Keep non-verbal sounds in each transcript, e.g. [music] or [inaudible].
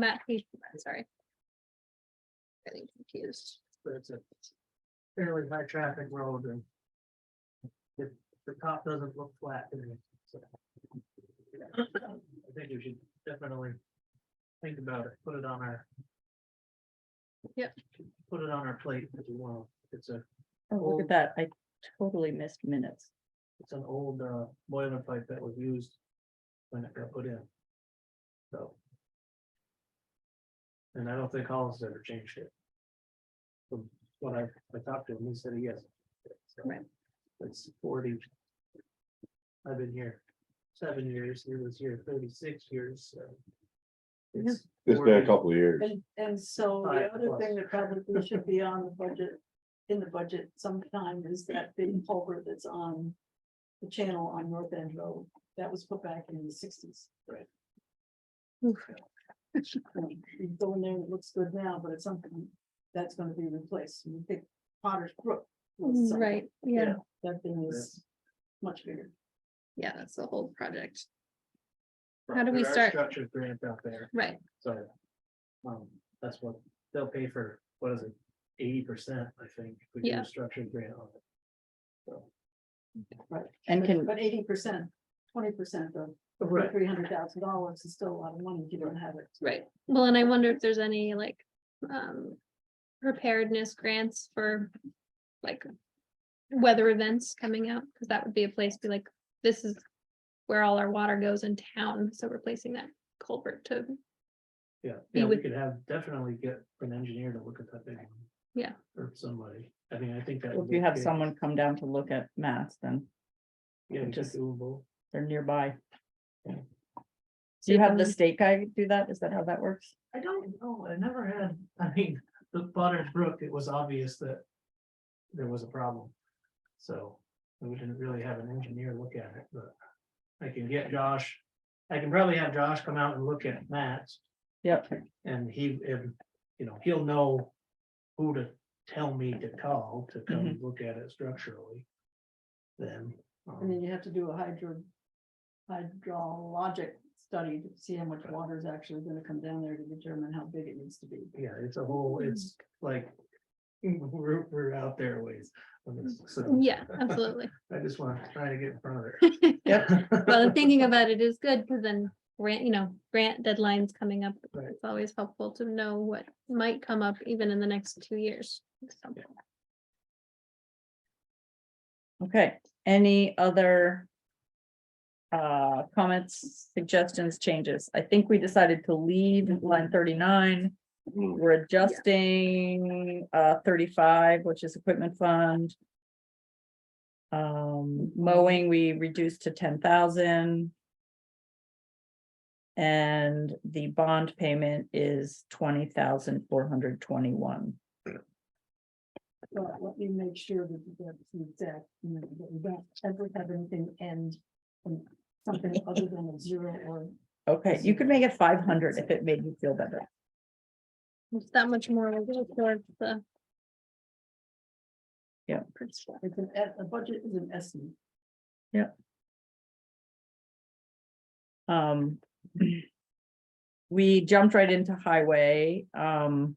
Matt Hayes, I'm sorry. Getting confused. but it's a fairly high traffic road and the, the top doesn't look flat. to me, so. I think we should definitely think about it, put it on our. Yep. Put it on our plate as well. It's a, Oh, look Oh. at that. I totally missed minutes. it's an old uh, boiler pipe that was used when it got put in. So. And I don't think Hollis ever changed it. From what I, I talked to him, he said yes. Right. It's forty. I've been here seven years, he was here thirty-six years, so. It's It's been a 40. couple of years. And, and so Five the other plus. thing that probably should be on the budget, in the budget sometime is that big culvert that's on. The channel on North End Road, that was put back in the sixties. Right. You go in there, and it looks good now, but it's something that's gonna be replaced, you think Potter's Brook. was something. Mm, Right, yeah, That thing is much bigger. yeah, that's the whole project, Right, How do we there are start? Structure grant out there. right, So. Um, that's what, they'll pay for, what is it, eighty percent, I think, if we do Yeah. a structured grant on it. So. And can, But eighty percent, twenty percent of Oh, Right, three hundred thousand dollars is still a lot of money, if you don't have it. right. Well, and I wonder if there's any like, um, preparedness grants for like weather events coming out, because that would be a place to be like, this is where all our water goes in town, so replacing that culvert to, yeah, Be yeah, we with- could have, definitely get an engineer to look at that thing. Yeah. Or somebody, I mean, I think that. if would you be have okay. someone come down to look at maps, then Yeah, just just- doable, they're nearby. Yeah. So you have the Mhm. state guy do that? Is that how that works? I don't know, I never had, I mean, the Potter's Brook, it was obvious that. There was a problem. So, we didn't really have an engineer look at it, but. I can get Josh, I can probably have Josh come out and look at Matt's. Yep, And he, and, you know, he'll know who to tell me to call to come look at it structurally. Then. um, And then you have to do a hydro. Hydrologic study to see how much water is actually gonna come down there to determine how big it needs to be. Yeah, it's a whole, it's like, [laughs] we're, we're out there a ways. on this, so yeah, absolutely. I just want to try to get in front of it. Well, and thinking about it is good, because then grant, you know, grant deadlines coming up. Right. It's always helpful to know what might come up even in the next two years. So, Yeah. okay. Any other uh, comments, suggestions, changes? I think we decided to leave line thirty-nine. Mm. We're adjusting uh thirty-five, which is equipment fund. Um, mowing, we reduced to ten thousand. And the bond payment is twenty thousand four hundred twenty-one. But let me make sure that that's the exact, you know, that we don't ever have anything end. in Something other than a zero or, Okay, you could make it five hundred if it made you feel better. it's That much more will go towards the. Yeah. it's an, e- a budget is an estimate. Um. We jumped right into highway, um.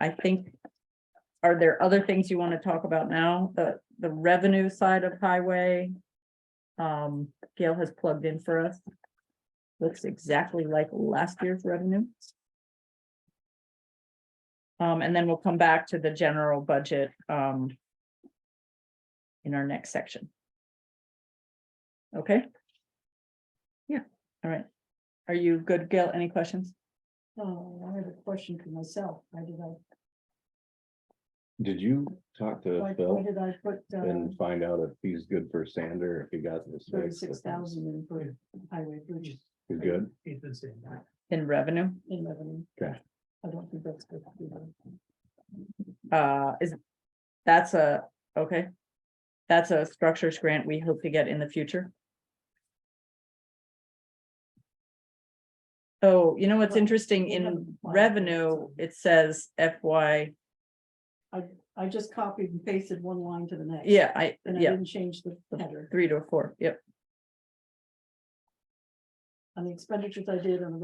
I think. Are there other things you want to talk about now? The, the revenue side of highway? Um, Gail has plugged in for us. Looks exactly like last year's revenue. Um, and then we'll come back to the general budget, um. In our next section. Okay? Yeah. All right. Are you good, Gail? Any questions? Oh, I have a question for myself. Why did I, Did you talk why to why Phil did I put uh, and find out if he's good for Sander, if he got this fixed? thirty-six thousand in for highway bridges He's good? [laughs] He's been saying that. In revenue, in revenue? Okay. I don't think that's good. to do. uh, is, that's a, okay. That's a structures grant we hope to get in the future. Oh, you know what's interesting We haven't in applied for it, revenue, so- it says FY, I just copied and pasted one line to the next. yeah, I, And I yeah, didn't change the header. three to a four, yep. On the expenditures I did on the